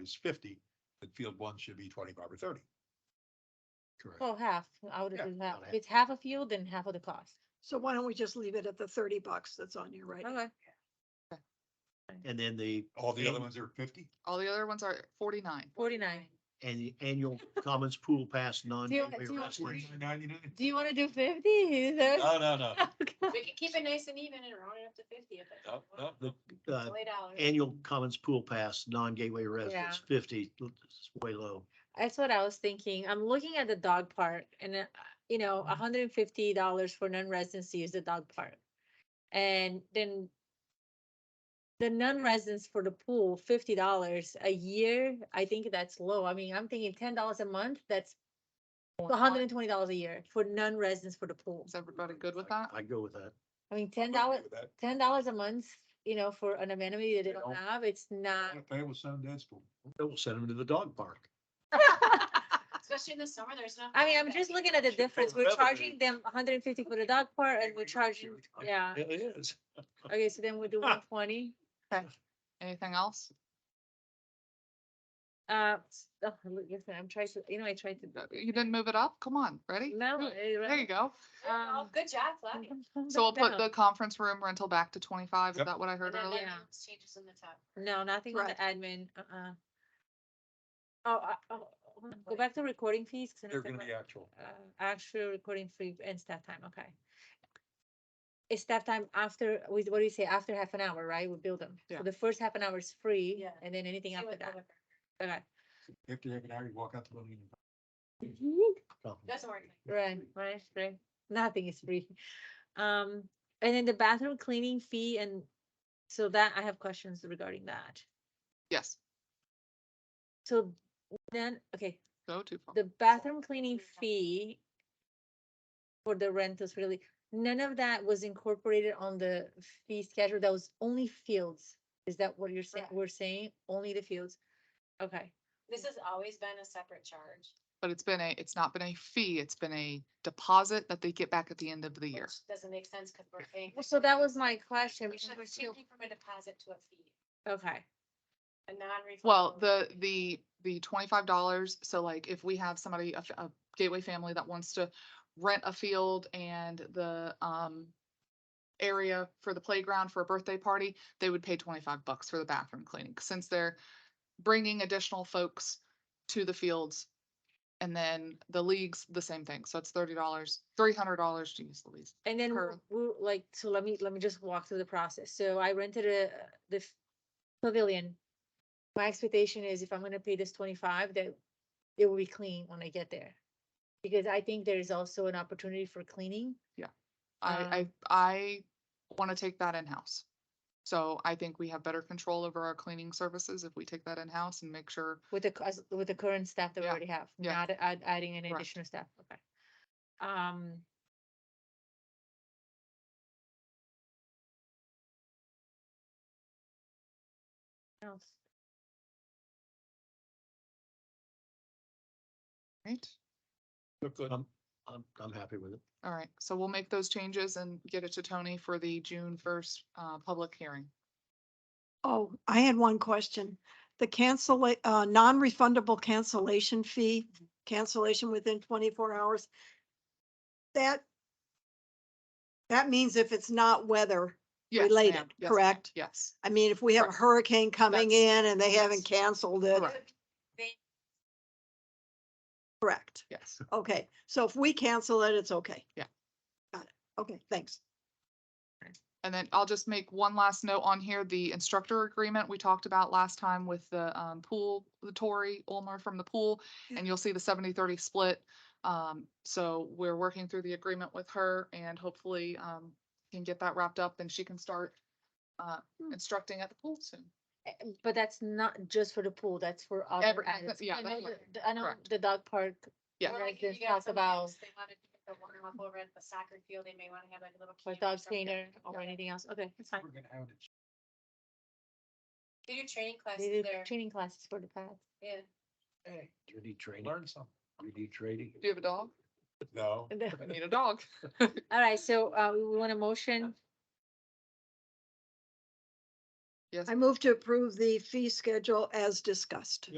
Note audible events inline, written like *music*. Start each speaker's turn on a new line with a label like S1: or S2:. S1: is fifty, then field one should be twenty-five or thirty.
S2: Correct.
S3: Well, Oh, half, I would
S1: Yeah,
S3: do half.
S1: about
S3: If
S1: half.
S3: it's half a field, then half of the cost.
S4: So why don't we just leave it at the thirty bucks that's on your right?
S3: Okay.
S2: And then the.
S1: All the other
S2: an-
S1: ones are fifty?
S5: All the other ones are forty-nine.
S3: Forty-nine.
S2: And the annual
S3: *laughs*
S2: Commons Pool Pass non.
S3: Do you-
S2: gateway
S3: do you-
S2: rest area.
S1: Ninety-nine?
S3: Do you wanna do fifty? *laughs*
S1: No, no, *laughs* no.
S6: We could keep it nice and even and round it up to fifty if it.
S1: No, no, no.
S2: Uh,
S6: Lay dollars.
S2: Annual Commons Pool Pass non-gateway residents fifty, it's way low.
S3: That's what I was thinking. I'm looking at the dog park and, uh, you know,
S1: Mm-hmm.
S3: hundred and fifty dollars for non-residents to use the dog park. And then the non-residents for the pool, fifty dollars a year, I think that's low. I mean, I'm thinking ten dollars a month, that's hundred and twenty dollars a year for non-residents for the pool.
S5: Is everybody good with that?
S2: I go with that.
S3: I mean, ten
S1: I'm
S3: dollars,
S1: okay with that.
S3: ten dollars a month, you know, for an amenity that they don't
S2: Yeah.
S3: have, it's not.
S1: I'm gonna Pay with some dad's pool.
S2: Then We'll send them to the dog park.
S6: Especially in the summer, there's not.
S3: I mean, I'm just looking at the difference. We're
S2: revenue.
S3: charging them hundred and fifty for the dog park and we're charging, yeah.
S2: It is.
S3: Okay, so then we do one twenty.
S5: Anything else?
S3: Uh, s- oh, look, listen, I'm trying to, you know, I tried to.
S5: Uh, You didn't move it up? Come on, ready?
S3: No. eh,
S5: There you
S3: right.
S5: go.
S6: Oh,
S3: Um, *laughs*
S6: good job, Flavia.
S5: So we'll put
S3: no,
S5: the conference room rental back to twenty-five. Is
S1: Yep.
S5: that what I heard
S6: And then
S5: earlier?
S3: yeah.
S6: everyone's Changes in the top.
S3: No, nothing on the
S4: Right.
S3: admin, uh-uh. Oh, I- oh, oh, go back to recording fees. 'cause I know
S1: They're
S3: it's
S1: gonna
S3: about-
S1: be actual.
S3: uh, actual recording free and staff time, okay. It's staff time after, with, what do you say, after half an hour, right? We build them. So
S5: Yeah.
S3: the first half an hour is free
S6: Yeah.
S3: and then anything
S6: See
S3: after
S6: what
S3: that.
S6: November-
S3: Okay,
S1: After you have an hour, you walk out the building. and-
S2: Um,
S6: Doesn't work. like-
S3: right, right, right. Nothing is free. Um, and then the bathroom cleaning fee and so that, I have questions regarding that.
S5: Yes,
S3: So then, okay,
S5: go too far.
S3: the bathroom cleaning fee for the rentals really, none of that was incorporated on the fee schedule. That was only fields. Is that what you're saying?
S6: Correct.
S3: We're saying only the fields? Okay,
S6: This has always been a separate charge.
S5: But it's been a, it's not been a fee, it's been a deposit that they get back at the end of the year.
S6: which Doesn't make sense because we're paying.
S3: Well, so that was my question.
S6: We should
S3: because we're
S6: be
S3: still-
S6: changing from a deposit to a fee,
S3: Okay,
S6: a non-refundable.
S5: Well, the, the, the twenty-five dollars, so like if we have somebody, a, f- a gateway family that wants to rent a field and the, um, area for the playground for a birthday party, they would pay twenty-five bucks for the bathroom cleaning, since they're bringing additional folks to the fields. And then the leagues, the same thing, so it's thirty dollars, three hundred dollars to use the leagues.
S3: and then
S5: Per-
S3: we like, so let me, let me just walk through the process. So I rented a, the f- pavilion. My expectation is if I'm gonna pay this twenty-five, that it will be clean when I get there. Because I think there is also an opportunity for cleaning.
S5: I,
S3: Um,
S5: I, I want to take that in-house. So I think we have better control over our cleaning services if we take that in-house and make sure,
S3: With the, cu- as- with the current staff that we
S5: Yeah,
S3: already have,
S5: yeah.
S3: not add- adding any
S5: Correct.
S3: additional staff, okay. Um. Else,
S5: right?
S1: Look good.
S2: I'm, I'm, I'm happy with it.
S5: All right, so we'll make those changes and get it to Tony for the June first, uh, public hearing.
S4: Oh, I had one question. The cancel, uh, non-refundable cancellation fee, cancellation within twenty-four hours. That, that means if it's not weather
S5: Yes, ma'am.
S4: related,
S5: Yes, ma'am.
S4: correct?
S5: Yes,
S4: I mean, if we have a
S5: Correct.
S4: hurricane coming in and they haven't canceled it,
S5: Correct.
S4: correct?
S5: yes.
S4: Okay, so if we cancel it, it's okay.
S5: Yeah.
S4: Got it. Okay, thanks.
S5: And then I'll just make one last note on here, the instructor agreement we talked about last time with the, um, pool, the Tori Ulmer from the pool.
S4: Yeah.
S5: And you'll see the 70-30 split. Um, so we're working through the agreement with her and hopefully, um, can get that wrapped up and she can start, uh,
S3: Hmm.
S5: instructing at the pool soon.
S3: eh, but that's not just for the pool, that's for. other
S5: Every-
S3: added-
S5: yeah,
S3: I know
S5: that's
S3: the-
S5: right,
S3: the- I know
S5: correct.
S3: the dog park,
S5: Yeah.
S6: Or
S3: like
S6: if you
S3: this
S6: got
S3: talk
S6: some
S3: about-
S6: kids, They wanted to get the warm up over at the soccer field, they may want to have like a little.
S3: or
S6: camp or
S3: dog
S6: something.
S3: trainer, or
S6: Yeah.
S3: anything else, okay, it's fine.
S1: We're gonna have it.
S6: They do training
S3: They
S6: classes
S3: do
S6: there,
S3: training classes for the pets.
S6: yeah.
S1: Hey,
S2: Three D training,
S1: learn something.
S2: three D trading.
S5: Do you have a dog?
S1: No.
S5: I
S3: *laughs*
S5: need a dog.
S3: All right, so, uh, we want a motion
S5: Yes.
S4: I move to approve the fee schedule as discussed.